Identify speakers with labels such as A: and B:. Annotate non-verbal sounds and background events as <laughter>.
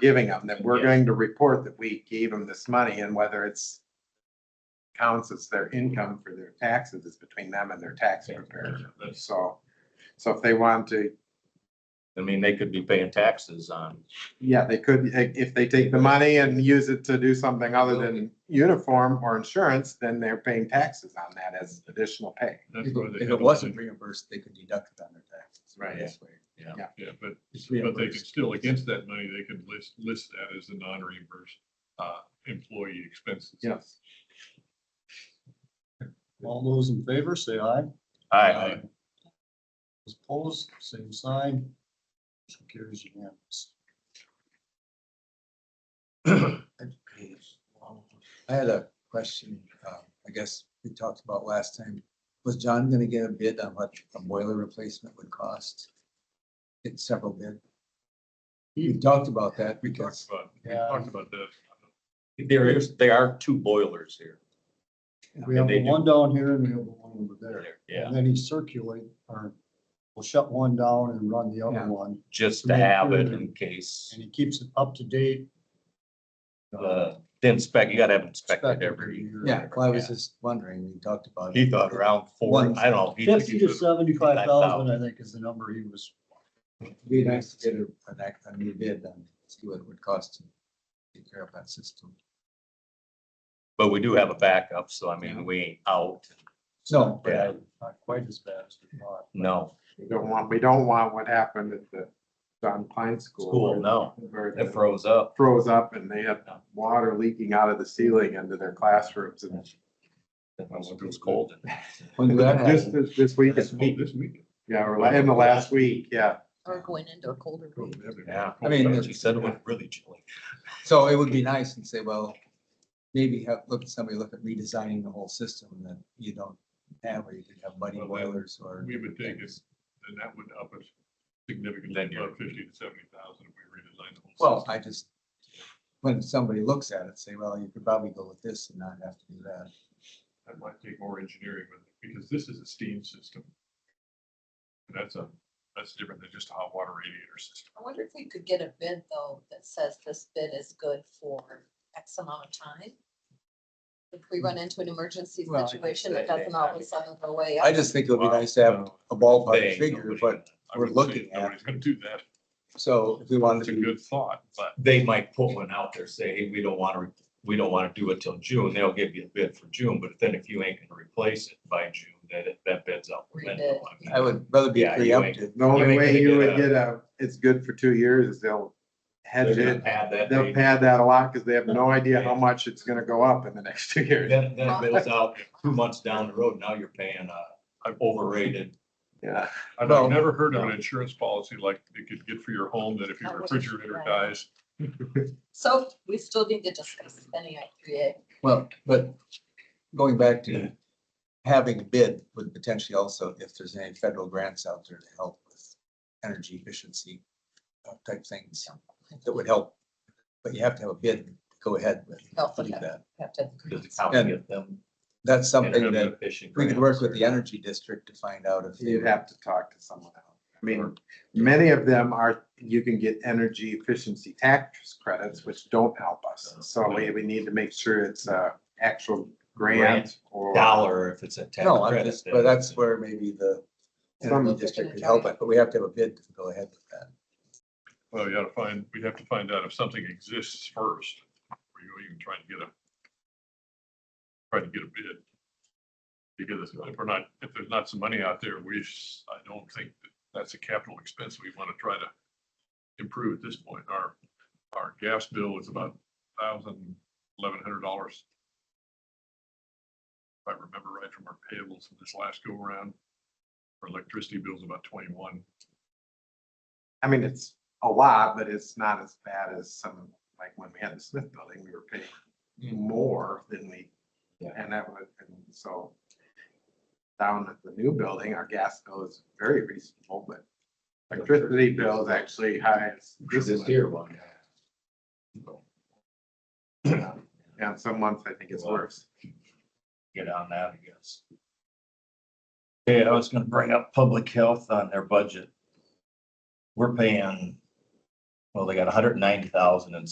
A: giving them, that we're
B: Yeah.
A: going to report that we gave them this money and whether it's counts as their income for their taxes is between them and their tax
B: Yeah,
A: preparer.
B: that's-
A: So, so if they want to,
B: I mean, they could be paying taxes on,
A: yeah, they could, if they take the money and use it to do something other than uniform or insurance, then they're paying taxes on that as additional pay.
C: If
D: That's where they
C: it- if
D: had
C: it
D: all
C: wasn't
D: the-
C: reimbursed, they could deduct it on their taxes.
A: Right.
C: This way,
D: Yeah, but,
C: It's
D: but they could
C: reimbursed.
D: still, against that money, they could list, list that as the non-reimbursed, uh, employee expenses.
A: Yes.
E: All those in favor, say aye.
B: I,
E: Those Opposed, same sign. Motion carries unanimous.
C: I had a question, uh, I guess we talked about last time. Was John gonna get a bid on what a boiler replacement would cost? Get several bid? We talked about that
D: We talked
C: because
D: about, we
E: Yeah.
D: talked about that.
B: there is, there are two boilers here.
E: We have
B: And they
E: the
B: do-
E: one down here and we have the one over there.
B: Yeah,
E: And then he circulate or will shut one down and run the
A: Yeah.
E: other one
B: just to have it in case,
E: and he keeps it up to date.
B: uh, the inspect, you gotta have it inspected
E: Inspected
B: every,
E: year.
C: Yeah, well, I was just wondering, we talked about.
B: he
C: it.
B: thought around four, I don't know. he-
E: Fifty to seventy-five thousand, I think, is the number he was.
C: Be nice to get a, an act, a new bid and see what it would cost to take care of that system.
B: But we do have a backup, so I mean, we ain't out,
E: No, but
B: Yeah.
E: not quite as bad as we thought.
B: no,
A: We don't want, we don't want what happened at the John Klein School.
B: School, no.
A: Where the-
B: it froze up.
A: froze up and they had water leaking out of the ceiling into their classrooms and
B: It was cold. in there.
C: When that
A: just
C: happened,
A: this, this week,
D: This week, Oh, this week.
A: yeah, or la- in the last week, yeah.
F: Or going into a colder
D: Oh,
F: week.
D: that'd be-
B: Yeah.
C: I mean,
B: But She said it was really chilly.
C: so it would be nice and say, well, maybe have, look, somebody look at redesigning the whole system that you don't have, where you could have muddy
D: Well, that-
C: boilers or.
D: We would take it,
C: things.
D: and that would up it
B: Then
D: significantly,
B: you're-
D: about fifty to seventy thousand if we redesign the whole.
C: Well,
D: system.
C: I just, when somebody looks at it, say, well, you could probably go with this and not have to do that.
D: That might take more engineering with it, because this is a steam system. And That's a, that's different than just a hot water radiator system.
F: I wonder if we could get a bid though that says this bid is good for X amount of time? If we run into an emergency
C: Well, I guess
F: situation,
B: that-
F: it doesn't all of a sudden go away.
C: I just think it would be nice to have a
B: They
C: ballpark
B: ain't
C: figure,
B: nobody
C: but,
D: I
C: We're
D: wouldn't say
C: looking at-
D: Nobody's gonna do that.
C: so if we wanted
D: It's
C: to
D: a
C: be
D: good thought, but
B: they might put one out there, say, hey, we don't wanna, we don't wanna do it till June, they'll give you a bid for June, but then if you ain't gonna replace it by June, that, that bid's out. the window. I mean,
C: I would rather be
B: Yeah, you ain't-
C: preemptive.
A: The
B: You
A: only
B: ain't
A: way
B: gonna
A: you
B: get
A: would
B: a-
A: get a, it's good for two years is they'll
B: They're
A: hedge
B: gonna
A: it.
B: pad that
A: They'll
B: date,
A: pad that a lot because they have no idea how much it's gonna go up in the <laughs> next two years.
B: then, then it bills out two months down the road, now you're paying, uh, an overrated.
A: Yeah,
D: I've
C: Well-
D: never heard of an insurance policy like you could get for your home, that if your
F: That was-
D: refrigerator
F: right.
D: dies,
F: So we still need to discuss spending I three A.
C: Well, but going back to having a bid would potentially also, if there's any federal grants out there to help with energy efficiency uh, type things that would help, but you have to have a bid, to go ahead with.
F: Oh,
C: putting
F: okay.
C: that.
F: Have to.
B: Does the county get them?
C: That's something that
B: intermittent fishing
C: we could work with the
B: grants or-
C: energy district to find out if. they
A: you'd
C: would-
A: have to talk to someone else. I mean, many of them are, you can get energy efficiency tax credits, which don't help us.
B: Oh.
A: So we, we need to make sure it's a actual grant
B: Grant,
A: or.
B: Dollar if it's a tax
C: No, I'm
B: credit.
C: just,
B: then
C: but that's
B: it's-
C: where maybe the
A: Some-
C: energy district could help it, but we have to have a bid to go ahead with that.
D: well, you gotta find, we have to find out if something exists first. Or you even try to get a, try to get a bid. Because if we're not, if there's not some money out there, we, s- I don't think that that's a capital expense we wanna try to improve at this point. Our, our gas bill is about thousand, eleven hundred dollars. If I remember right from our payables from this last go around, our electricity bill's about twenty-one.
A: I mean, it's a lot, but it's not as bad as some, like when we had the Smith building, we were paying more than we,
B: Mm. Yeah.
A: and that was, and so down at the new building, our gas bill is very reasonable, but electricity bill is actually high. as this
B: This
A: one.
B: here <clears throat> one.
A: And some months I think it's worse.
B: get on that, I guess. Okay, I was gonna bring up public health on their budget. We're paying, what well, they got hundred and ninety thousand in